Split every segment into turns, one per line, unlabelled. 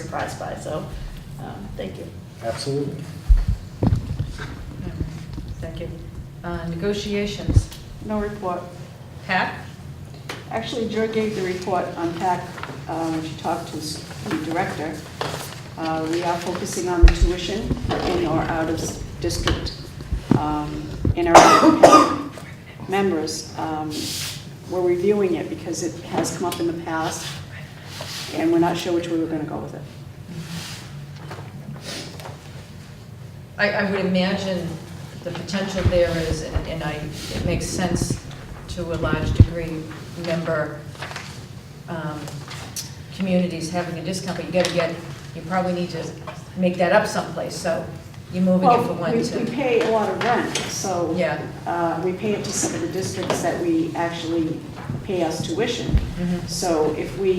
surprised by, so, um, thank you.
Absolutely.
Thank you. Uh, Negotiations,
No report.
PAC?
Actually, Jer gave the report on PAC uh, when she talked to s- the director. Uh, We are focusing on the tuition in or out of s- district um, in our PAC members. Um, We're reviewing it because it has come up in the past, and we're not sure which way we're going to go with it.
I, I would imagine the potential there is, and and I, it makes sense to a large degree, member um, communities having a discount, but you gotta get, you probably need to make that up someplace, so you're moving it from
Well,
one
we we
to,
pay a lot of rent, so.
Yeah.
uh, We pay it to some of the districts that we actually pay us tuition.
Mhm.
So if we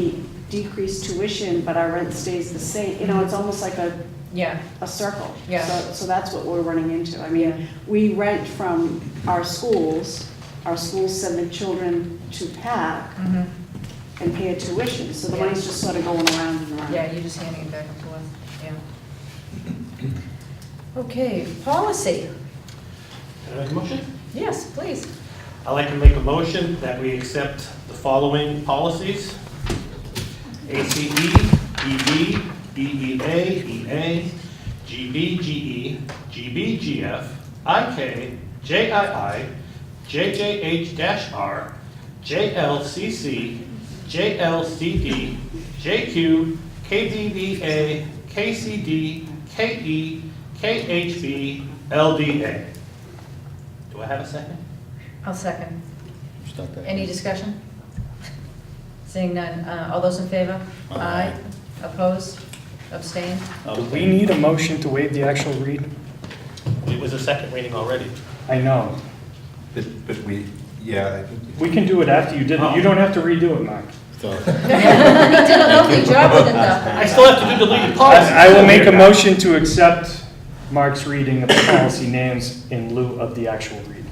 decrease tuition, but our rent stays the same, you know, it's almost like a,
yeah,
a circle.
Yeah.
So- So that's what we're running into. I
Yeah.
mean, we rent from our schools, our schools send the children to PAC
mhm.
and pay a tuition, so the
Yeah.
money's just sort of going around and around.
yeah, you're just handing it back and forth, yeah. Okay, policy,
Can I make a motion?
yes, please.
I'd like to make a motion that we accept the following policies. E, ACE, EB, EEA, EA, GBGE, GBGF, IK, JII, JJH-R, JLCC, JLCD, JQ, KDVA, KCD, KE, KHB, LDA. Do I have a second?
I'll second.
Stop that.
Any discussion? Seeing none, Uh, all those in favor? Aye. Opposed? Abstained?
Do
Uh,
we need a motion to waive the actual read?
It was a second reading already.
I know.
But, but we, yeah, I think.
We can do it after you did it. You don't have to redo it, Mark.
You did a lovely job with it, though.
I still have to do deleted policies.
I I will make a motion to accept Mark's reading of the policy names in lieu of the actual read.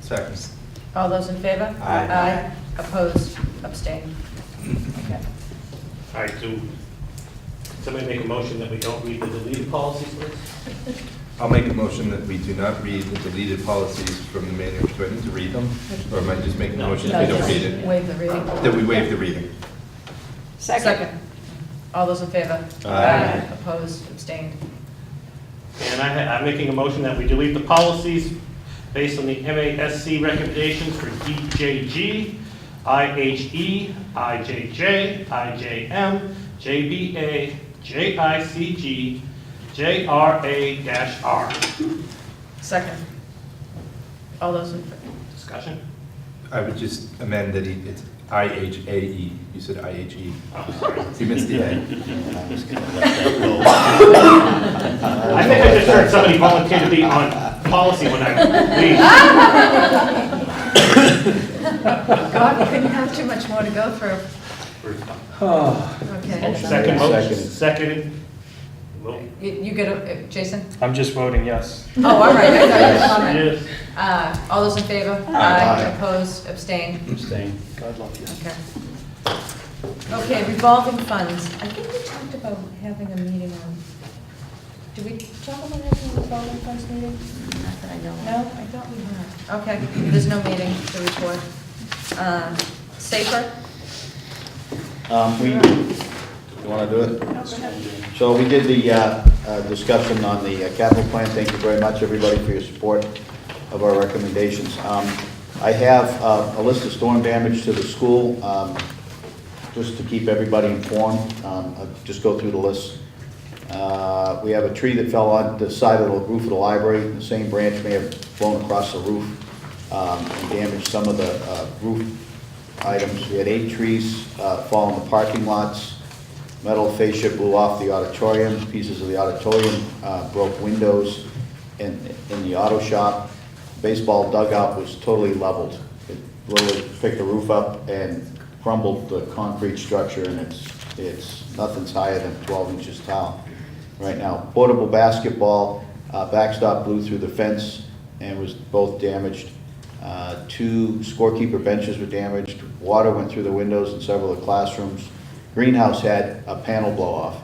Seconds.
All those in favor?
Aye.
Opposed? Abstained? Okay.
All right, do, somebody make a motion that we don't read the deleted policies, please?
I'll make a motion that we do not read the deleted policies from the manual. Do I need to read them? Or am I just making a
No.
motion
No,
that we
no.
don't read it?
Waive the reading.
That we waive the reading?
Second.
All those in favor?
Aye.
Opposed? Abstained?
And I, ha- I'm making a motion that we delete the policies based on the MASC recommendations for DJG, IHE, IJJ, IJM, JBA, JICG, JRA-R.
Second. All those in,
Discussion?
I would just amend that he- it's I-H-A-E. E. You said I-H-E.
Oh, sorry.
You missed the A.
I think I just heard somebody volunteer to be on policy when I leave.
Oh, God, we couldn't have too much more to go through. Okay.
Second motion, seconded. Well,
You you get, a- uh, Jason?
I'm just voting yes.
Oh, all right, I thought you had a comment.
Yes.
Uh, All those in favor?
Aye.
Opposed, abstained?
God love you.
Okay. Okay, revolving funds. I think we talked about having a meeting on, did we talk about having a revolving funds meeting?
Not that I know of.
No, I thought we had. Okay, there's no meeting to report. Um, Safer?
Um, we, you wanna do it? So we did the, uh, uh, discussion on the uh, capital plan, thank you very much, everybody, for your support of our recommendations. Um, I have, uh, a list of storm damage to the school, um, just to keep everybody informed, um, I'll just go through the list. Uh, we have a tree that fell on the side of the roof of the library, the same branch may have blown across the roof, um, and damaged some of the, uh, roof items. We had eight trees uh, fall in the parking lots. Metal fascia blew off the auditorium, pieces of the auditorium uh, broke windows in, in the auto shop. Baseball dugout was totally leveled. It literally picked the roof up and crumbled the concrete structure, and it's, it's, nothing's higher than 12 inches tall right now. Portable basketball, uh, backstop blew through the fence and was both damaged. Uh, Two scorekeeper benches were damaged, water went through the windows in several of the classrooms. Greenhouse had a panel blow off.